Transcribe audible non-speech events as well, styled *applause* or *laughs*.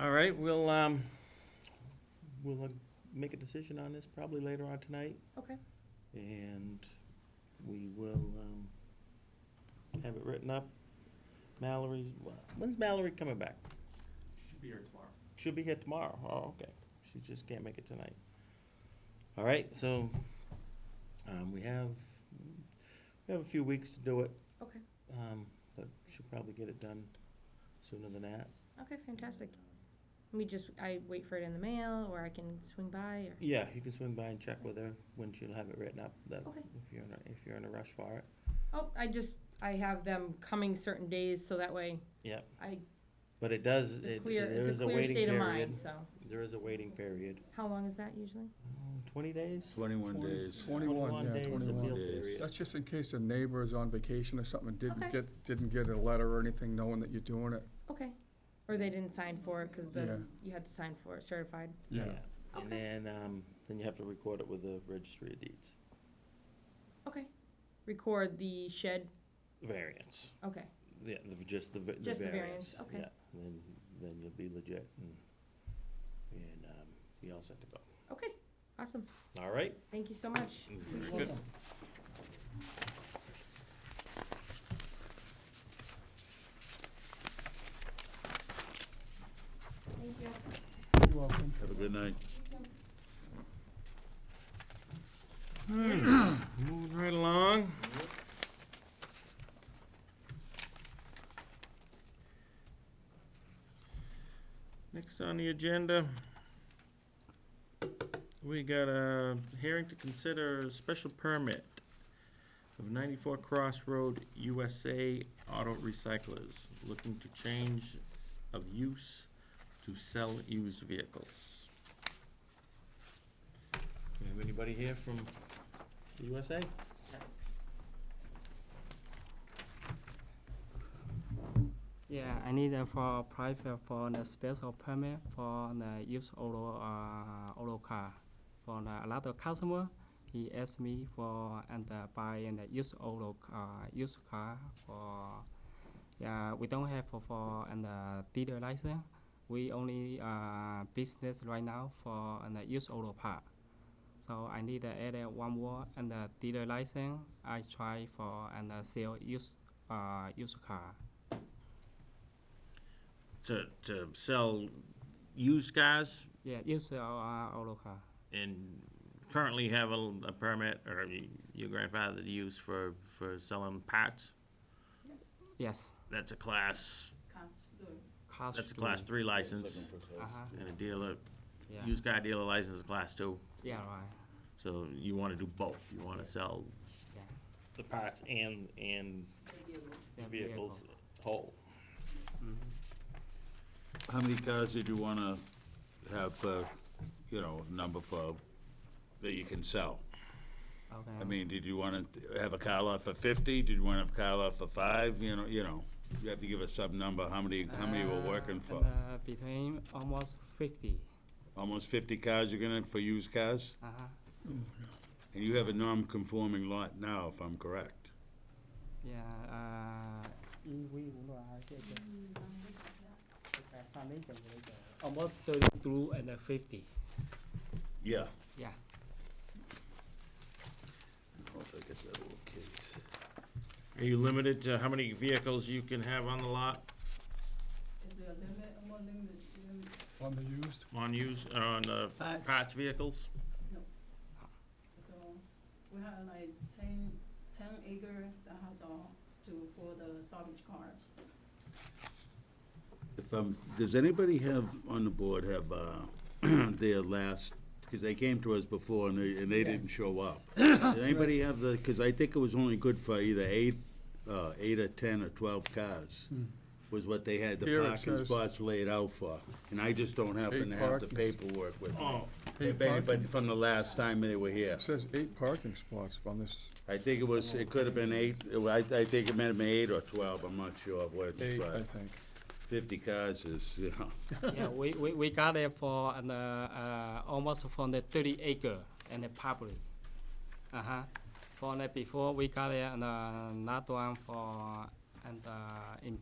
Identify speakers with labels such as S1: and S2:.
S1: All right, we'll, um, we'll uh, make a decision on this probably later on tonight,
S2: Okay.
S1: and we will, um, have it written up. Mallory's, when's Mallory coming back?
S3: Should be here tomorrow.
S1: She'll be here tomorrow. Oh, okay. She just can't make it tonight. All right, so, um, we have, we have a few weeks to do it,
S2: Okay.
S1: um, but she'll probably get it done sooner than that.
S2: Okay. Fantastic. Let me just I wait for it in the mail, or I can swing by, or
S1: Yeah, you can swing by and check with her when she'll have it written up, that,
S2: Okay.
S1: if you're in a, if you're in a rush for it.
S2: oh, I just I have them coming certain days, so that way
S1: Yep,
S2: I
S1: but it does,
S2: it's a
S1: it,
S2: clear.
S1: there
S2: It's
S1: is
S2: a
S1: a
S2: clear
S1: waiting
S2: state of mind.
S1: period.
S2: So
S1: There is a waiting period.
S2: how long is that usually?
S1: Oh, Twenty days?
S4: Twenty-
S5: Twenty-one days.
S4: Twenty-one, yeah,
S1: days appeal
S4: twenty-one.
S5: days.
S1: period.
S4: That's just in case a neighbor is on vacation or something, and
S2: Okay.
S4: didn't get, didn't get a letter or anything knowing that you're doing it.
S2: Okay. Or they didn't sign for it because the
S4: Yeah.
S2: you had to sign for it certified.
S1: And then, um, then you have to record it with the registry of deeds.
S2: Okay. Record the shed.
S1: Variance.
S2: Okay.
S1: Yeah, the, just the, va- the
S2: Just the
S1: variance.
S2: variance, okay.
S1: Yeah, Then, then you'll be legit and, and, um, you all set to go.
S2: Okay. Awesome.
S1: All right?
S2: Thank you so much.
S1: Very
S4: You're
S1: good.
S4: welcome.
S2: Thank you.
S4: You're welcome.
S5: Have a good night.
S1: Hmm. Moving right along. Next on the agenda, we got a hearing to consider a special permit of 94 Crossroad USA Auto Recyclers, looking to change of use to sell used vehicles. Do we have anybody here from the USA?
S6: Yeah, I need uh, for private for the special permit for the use auto uh, auto car. For the, a lot of customer, he asked me for and uh, buy and uh, use auto uh, used car for. Yeah, we don't have for, for and uh, dealer license. We only uh, business right now for and uh, use auto part. So I need to add uh, one more and uh, dealer license. I try for and uh, sell use uh, used car.
S1: to, to sell used cars
S6: Yeah, use our auto car.
S1: and currently have a, a permit or y- your grandfather to use for, for selling parts.
S6: Yes.
S1: That's a class,
S6: Class
S1: that's a
S6: two.
S1: class three license
S6: Uh-huh.
S1: and a dealer,
S6: Yeah.
S1: used car dealer license is a class two.
S6: yeah, right.
S1: So you wanna do both. You wanna sell
S6: Yeah.
S1: the parts and, and
S6: Yeah,
S1: vehicles whole.
S5: How many cars did you wanna have, uh, you know, number for, that you can sell?
S6: vehicle. Okay.
S5: I mean, did you wanna have a car lot for fifty? Did you wanna have a car lot for five? You know, you know, you have to give us some number, how many, how many we're
S6: Uh,
S5: working
S6: and,
S5: for?
S6: uh, between almost 50.
S5: Almost fifty cars you're gonna, for used cars?
S6: Uh-huh.
S5: And you have a non-conforming lot now, if I'm correct.
S6: Yeah. Uh, almost 32 and uh, 50.
S5: Yeah.
S6: Yeah.
S5: I'll take it that little case.
S1: Are you limited to how many vehicles you can have on the lot,
S7: Is there a limit, a more limit, limit?
S4: On the used,
S1: on used, or on the
S5: Parts.
S1: parts vehicles?
S7: So we have like ten, ten acre that has all to, for the salvage cars.
S5: If, um, does anybody have, on the board, have, uh, *clears throat* their last, because they came to us before and they, and they didn't show up. Does anybody have the, because I think it was only good for either eight, uh, eight or ten or twelve cars, was what they had the
S4: Here it
S5: parking
S4: says-
S5: spots laid out for. And I just don't happen
S4: Eight
S5: to have the
S4: parkings.
S5: paperwork with me.
S1: Oh,
S5: If anybody from the last time they were here.
S4: it says eight parking spots on this.
S5: I think it was, it could have been eight, I, I think it might have been eight or twelve, I'm not sure which,
S4: Eight, I
S5: but
S4: think.
S5: fifty cars is, *laughs* you know.
S6: yeah, we, we, we got it for an, uh, uh, almost from the 30 acre and the public. Uh huh. For the before we got it, and, uh, another one for and uh, in